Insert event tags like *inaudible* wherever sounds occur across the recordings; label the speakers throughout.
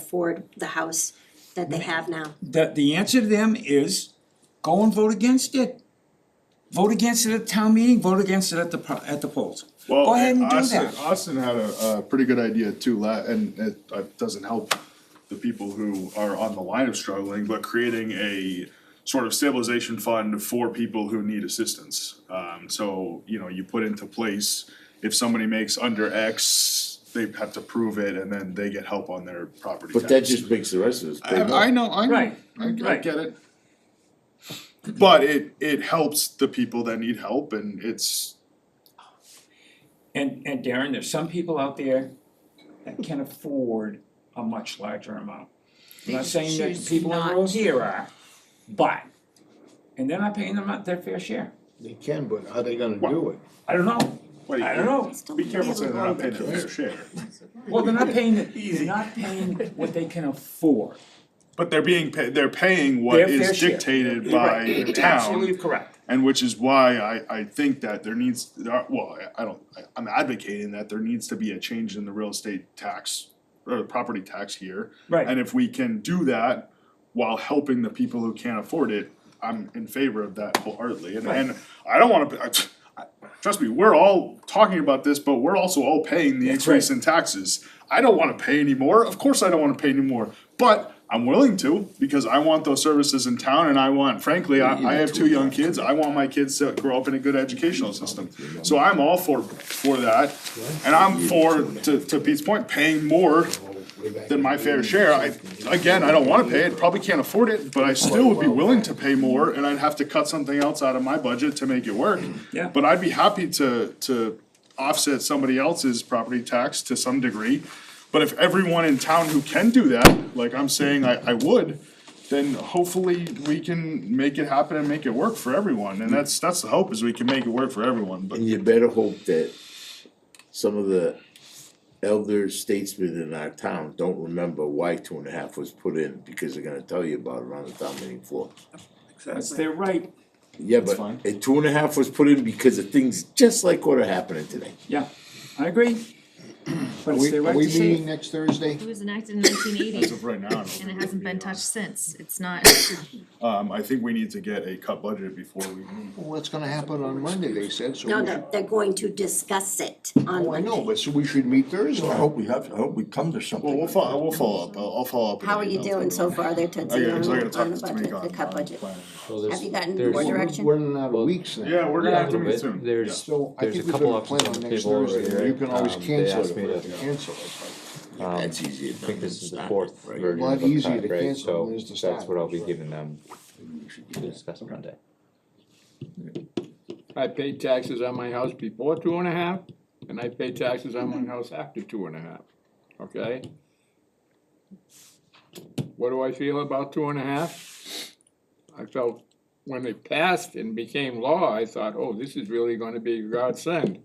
Speaker 1: afford the house that they have now.
Speaker 2: The the answer to them is go and vote against it. Vote against it at town meeting, vote against it at the pro- at the polls. Go ahead and do
Speaker 3: Austin,
Speaker 2: that.
Speaker 3: Austin had a, a pretty good idea too, la- and it, uh doesn't help the people who are on the line of struggling, but creating a sort of stabilization fund for people who need assistance. Um, so, you know, you put into place, if somebody makes under X, they have to prove it, and then they get help on their property
Speaker 4: But that just makes the rest of us pay more.
Speaker 3: I know, I know,
Speaker 5: Right,
Speaker 3: I I
Speaker 5: right.
Speaker 3: get it. But it, it helps the people that need help, and it's,
Speaker 5: And and Darren, there's some people out there that can afford a much larger amount. I'm not saying that
Speaker 6: choose
Speaker 5: the people
Speaker 6: not
Speaker 5: in Rosier are, but, and they're not paying them not their fair share.
Speaker 4: They can, but are they gonna do it?
Speaker 5: I don't know,
Speaker 3: wait,
Speaker 5: I don't know.
Speaker 1: Still
Speaker 3: be careful saying they're not paying
Speaker 1: available.
Speaker 3: their fair share.
Speaker 5: Well, they're not paying, it- they're not paying what they can afford.
Speaker 3: But they're being, pa- they're paying what
Speaker 5: Their fair
Speaker 3: is
Speaker 5: share.
Speaker 3: dictated by the
Speaker 5: Absolutely
Speaker 3: town.
Speaker 5: correct.
Speaker 3: And which is why I, I think that there needs, there are- well, I- I don't, I- I'm advocating that there needs to be a change in the real estate tax or the property tax here.
Speaker 5: Right.
Speaker 3: And if we can do that while helping the people who can't afford it, I'm in favor of that wholeheartedly. And, and I don't wanna, I- I- trust me, we're all talking about this, but we're also all paying the
Speaker 5: That's right.
Speaker 3: increase in taxes. I don't wanna pay anymore, of course I don't wanna pay anymore, but I'm willing to, because I want those services in town and I want, frankly, I, I have two young kids, I want my kids to grow up in a good educational system. So I'm all for, for that, and I'm for, to, to Pete's point, paying more than my fair share, I, again, I don't wanna pay it, probably can't afford it, but I still would be willing to pay more, and I'd have to cut something else out of my budget to make it work.
Speaker 5: Yeah.
Speaker 3: But I'd be happy to, to offset somebody else's property tax to some degree. But if everyone in town who can do that, like I'm saying I, I would, then hopefully we can make it happen and make it work for everyone, and that's, that's the hope, is we can make it work for everyone, but.
Speaker 4: And you better hope that some of the elder statesmen in our town don't remember why two and a half was put in, because they're gonna tell you about it on the town meeting floor.
Speaker 5: That's their right,
Speaker 4: Yeah,
Speaker 3: That's
Speaker 4: but
Speaker 3: fine.
Speaker 4: a two and a half was put in because of things just like what are happening today.
Speaker 5: yeah, I
Speaker 7: *clears throat*
Speaker 5: agree. But it's
Speaker 7: We,
Speaker 5: their
Speaker 7: are
Speaker 5: right
Speaker 7: we
Speaker 5: to say.
Speaker 7: meeting next Thursday?
Speaker 6: It was enacted in nineteen
Speaker 3: As
Speaker 6: eighty,
Speaker 3: of right now, I don't think
Speaker 6: and it
Speaker 3: we
Speaker 6: hasn't
Speaker 3: can
Speaker 6: been
Speaker 3: be on.
Speaker 6: touched since, it's not,
Speaker 3: Um, I think we need to get a cut budget before we move
Speaker 7: What's gonna happen on Monday, they said, so.
Speaker 1: No,
Speaker 7: we
Speaker 1: no,
Speaker 7: should-
Speaker 1: they're going to discuss it on
Speaker 7: Oh, I know,
Speaker 1: Monday.
Speaker 7: but so we should meet Thursday.
Speaker 8: I hope we have, I hope we come to something.
Speaker 3: Well, we'll follow, we'll follow up, I'll, I'll follow up. with
Speaker 1: How are
Speaker 3: an
Speaker 1: you
Speaker 3: email
Speaker 1: doing
Speaker 3: to
Speaker 1: so
Speaker 3: everyone.
Speaker 1: far there, Tootsie,
Speaker 3: I
Speaker 1: on
Speaker 3: gotta- 'cause I gotta
Speaker 1: on
Speaker 3: talk
Speaker 1: the
Speaker 3: to Tamika
Speaker 1: budget, the
Speaker 3: on-
Speaker 1: cut
Speaker 3: on
Speaker 1: budget?
Speaker 3: planning.
Speaker 9: Well, there's-
Speaker 1: Have you gotten
Speaker 9: there's-
Speaker 1: more
Speaker 7: Well, we're-
Speaker 1: direction?
Speaker 7: We're running out of weeks now.
Speaker 3: Yeah, we're gonna
Speaker 9: Yeah,
Speaker 3: have to
Speaker 9: a little
Speaker 3: meet
Speaker 9: bit.
Speaker 3: soon.
Speaker 9: There's-
Speaker 7: So I
Speaker 9: there's
Speaker 7: think
Speaker 9: a
Speaker 7: we
Speaker 9: couple
Speaker 7: better
Speaker 9: options
Speaker 7: plan
Speaker 9: on
Speaker 7: on
Speaker 9: the
Speaker 7: next
Speaker 9: table already,
Speaker 7: Thursday, and you
Speaker 9: right?
Speaker 7: can always
Speaker 9: Um, they
Speaker 7: cancel
Speaker 9: asked
Speaker 7: it,
Speaker 9: me
Speaker 7: if
Speaker 9: to-
Speaker 7: we cancel it.
Speaker 9: um,
Speaker 4: That's easier
Speaker 9: I
Speaker 4: than
Speaker 9: think this is the
Speaker 4: starting,
Speaker 9: fourth
Speaker 4: right?
Speaker 9: version
Speaker 7: Lot
Speaker 9: of the
Speaker 7: easier
Speaker 9: cut,
Speaker 7: to
Speaker 9: right?
Speaker 7: cancel
Speaker 9: So
Speaker 7: than it is to
Speaker 9: That's
Speaker 7: start.
Speaker 9: what I'll be giving them to discuss Monday.
Speaker 10: I paid taxes on my house before two and a half, and I pay taxes on my house after two and a half, okay? What do I feel about two and a half? I felt when it passed and became law, I thought, oh, this is really gonna be godsend.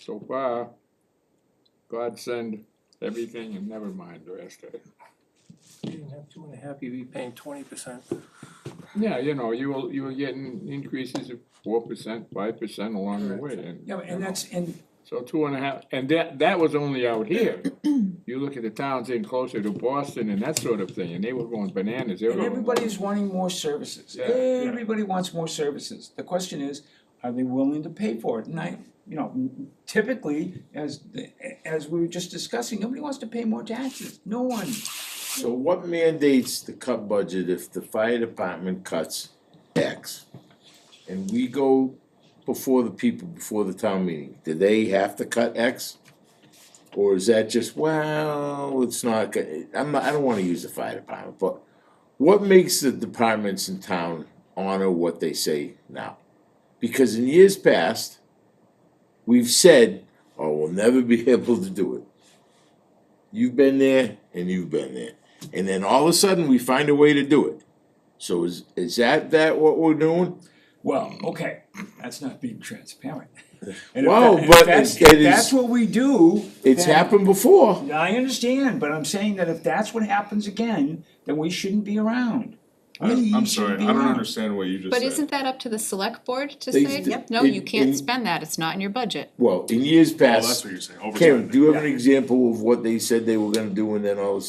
Speaker 10: So far, godsend everything and never mind the rest of it.
Speaker 11: You didn't have two and a half, you'd be paying twenty percent.
Speaker 10: Yeah, you know, you will, you were getting increases of four percent, five percent along the way, and.
Speaker 5: Yeah, and that's, and
Speaker 10: So two and a half, and that, that was only out here. You look at the towns in closer to Boston and that sort of thing, and they were going bananas, they were
Speaker 5: And
Speaker 10: going.
Speaker 5: everybody's wanting more services,
Speaker 10: Yeah, yeah.
Speaker 5: everybody wants more services, the question is, are they willing to pay for it, and I, you know, typically, as the, as we were just discussing, nobody wants to pay more taxes, no one.
Speaker 4: So what mandates the cut budget if the fire department cuts X? And we go before the people, before the town meeting, do they have to cut X? Or is that just, well, it's not, go- I'm not, I don't wanna use the fire department, but what makes the departments in town honor what they say now? Because in years past, we've said, oh, we'll never be *laughs* able to do it. You've been there and you've been there. And then all of a sudden, we find a way to do it. So is, is that, that what we're doing?
Speaker 5: Well, okay, that's not being transparent.
Speaker 4: Wow, but
Speaker 5: that's,
Speaker 4: it-
Speaker 5: if
Speaker 4: it
Speaker 5: that's
Speaker 4: is-
Speaker 5: what we do.
Speaker 4: It's
Speaker 5: then-
Speaker 4: happened before.
Speaker 5: I understand, but I'm saying that if that's what happens again, then we shouldn't be around.
Speaker 3: I- I'm sorry, I don't understand what you just said.
Speaker 12: But isn't that up to the select board to
Speaker 4: They-
Speaker 12: say,
Speaker 4: Yep.
Speaker 12: no,
Speaker 4: it-
Speaker 12: you can't
Speaker 4: it-
Speaker 12: spend that, it's not in your budget?
Speaker 4: Well, in years
Speaker 3: Oh, that's
Speaker 4: past,
Speaker 3: what you're saying, overtime.
Speaker 4: Karen, do you have an example of what they said they were gonna do and then all of a sudden